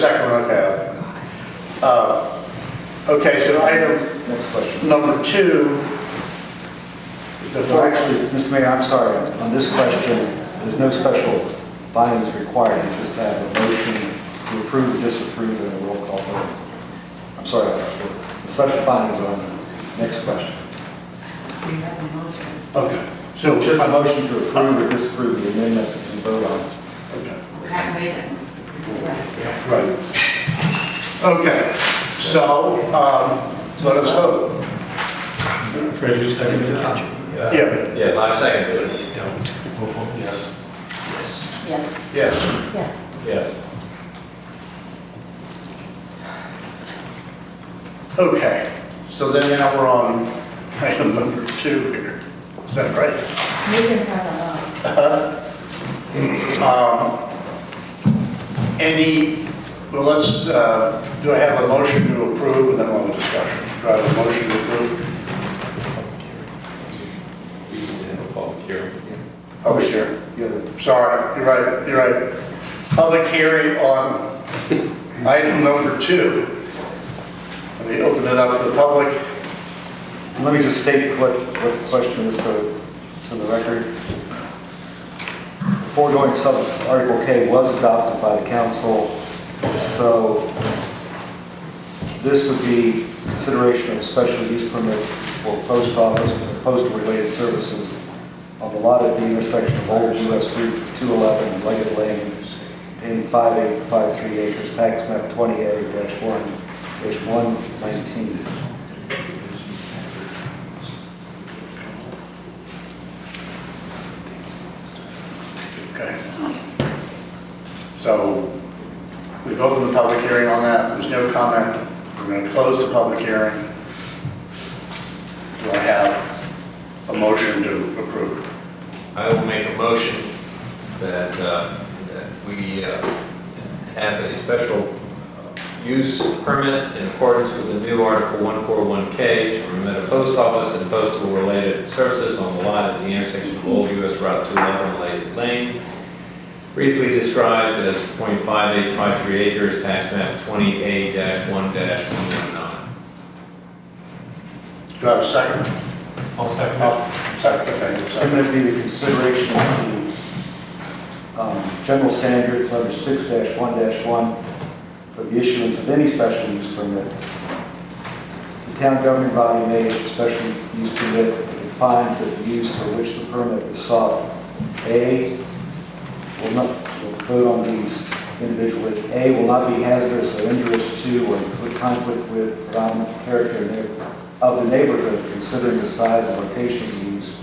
Sacramento Ave. Uh, Okay, so item Next question. number two is the So first. actually, Mr. Mayor, I'm sorry, on this question, there's no special findings required, you just have a motion to approve, disapprove, and a roll call vote. I'm sorry, the special findings are on the next question. We have a motion. Okay, so Just just, a motion to approve or disapprove the amendments and vote on. it. okay, We have made it. right. Okay, so, um, let us vote. Fred, you seconded it? Yeah. Yeah, I second it. You don't. Yes. Yes. Yes. Yes, Yes. Yes. okay. So then now we're on item number two here. Is that right? You can have Um, Any, well, let's, uh, do I have a motion to approve and then we'll have a discussion? Do I have a motion to approve? You can have a public hearing. Oh, sure. You have a Sorry, you're right, you're right. Public hearing on item number two. Let me open it up to the public. Let me just state what, what the question is so so the record. Foregoing sub Article K was adopted by the council, so this would be consideration of a special use permit for post office, for postal-related services on the lot at the intersection of Old US Route 211 and Leggett Lane, containing 5853 acres, tax map 28-1-119. Okay. So we've opened the public hearing on that. There's no comment. We're going to close the public hearing. Do I have a motion to approve? I will make a motion that, uh, that we uh, have a special uh, use permit in accordance with the new Article 141K to permit a post office and postal-related services on the lot at the intersection of Old US Route 211 and Lady Lane, briefly described as .5853 acres, tax map 20A-1-119. Do I have a second? I'll second it. Oh, Second, okay, I'm second. going to be the consideration of the um, general standards under six one one for the issuance of any special use permit. The town governing body may issue special use permit if it finds that the use for which the permit is sought, A, will not, we'll vote on these individually, A, will not be hazardous or injurious to or in conflict with predominant character neigh- of the neighborhood considering the size and location of the use,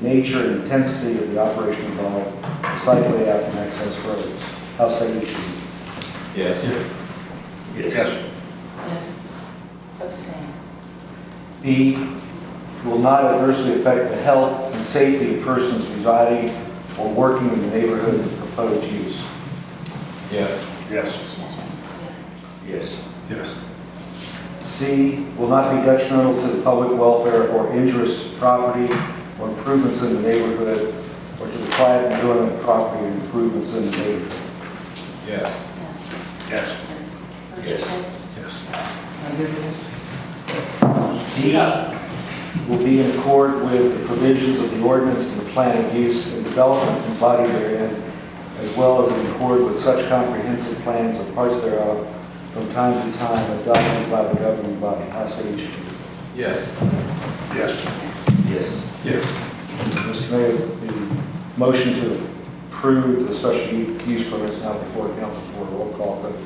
the nature and intensity of the operation involved, the site layout and access roads. House site issue. Yes. Yes, Yes. Abstain. B, will not adversely affect the health and safety of persons residing or working in the neighborhood of the proposed use. Yes. yes, Yes. Yes. C, will not be detrimental to the public welfare or interest to property or improvements in the neighborhood or to the quiet enjoyment of property and improvements in the neighborhood. Yes. yes. Yes. Yes. D will be in accord with the provisions of the ordinance and the plan of use and development embodied therein, as well as in accord with such comprehensive plans or parts thereof from time to time adopted by the governing body. I say each. Yes. Yes, Yes. Yes. Mr. Mayor, the motion to approve the special use permit is now before council for a roll call vote.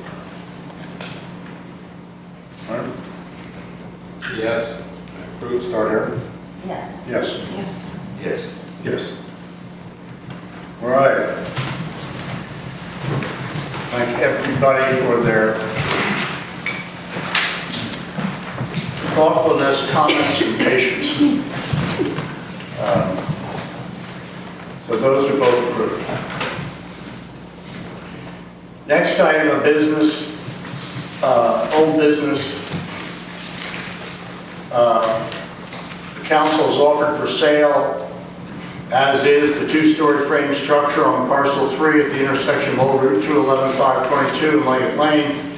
all right, Yes. we'll start here. Yes. Yes, Yes. Yes. Yes. all right. Thank everybody for their thoughtfulness, comments, and patience. Um, So those are both approved. Next item of business, uh, old business, Uh, The council has offered for sale As is, the two-story frame structure on parcel three at the intersection of Old Route 211, 522, and Leggett Lane